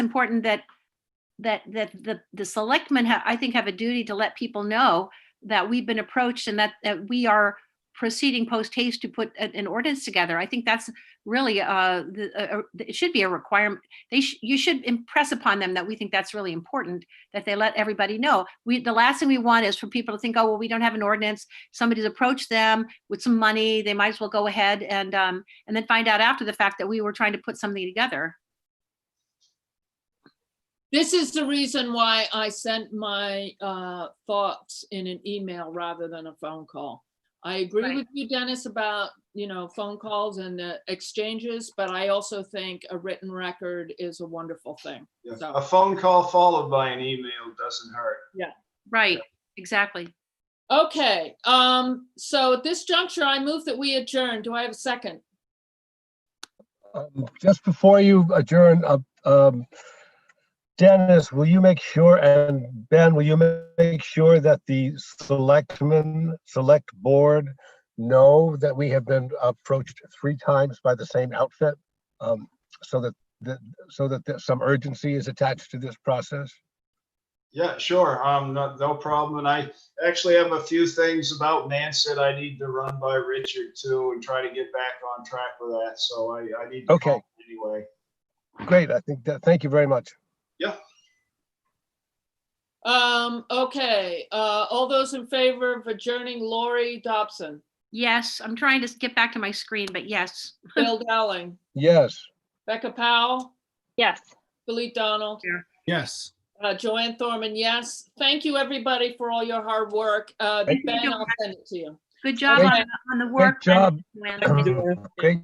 important that, that, that the, the selectmen, ha- I think, have a duty to let people know that we've been approached and that, that we are proceeding post haste to put a- an ordinance together. I think that's really, uh, the, uh, uh, it should be a requirement. They, sh- you should impress upon them that we think that's really important, that they let everybody know. We, the last thing we want is for people to think, oh, well, we don't have an ordinance. Somebody's approached them with some money. They might as well go ahead and, um, and then find out after the fact that we were trying to put something together. This is the reason why I sent my uh, thoughts in an email rather than a phone call. I agree Right. with you, Dennis, about, you know, phone calls and the exchanges, but I also think a written record is a wonderful thing. Yeah, So- A phone call followed by an email doesn't hurt. Right, exactly. Okay, um, so at this juncture, I move that we adjourn. Do I have a second? Um, Just before you adjourn, uh, um, Dennis, will you make sure, and Ben, will you ma- make sure that the selectmen, select board know that we have been approached three times by the same outfit? um, So that, that, so that there's some urgency is attached to this process? Yeah, sure. Um, no, no problem. And I actually have a few things about Nance that I need to run by Richard too and try to get back on track with that. So I, I need to Okay. call him anyway. Great, I think that, thank you very much. Um, okay, uh, all those in favor of adjourning, Lori Dobson, Yes, I'm trying to get back to my screen, but yes. Bill Dowling, Yes, Becca Powell, Yes. Philippe Donald, Yes. Uh, Joanne Thorman, yes. Thank you, everybody, for all your hard work. Uh, Thank you. Ben, I'll send it to you. Good job on Thank on the great work. job. Joanne. Great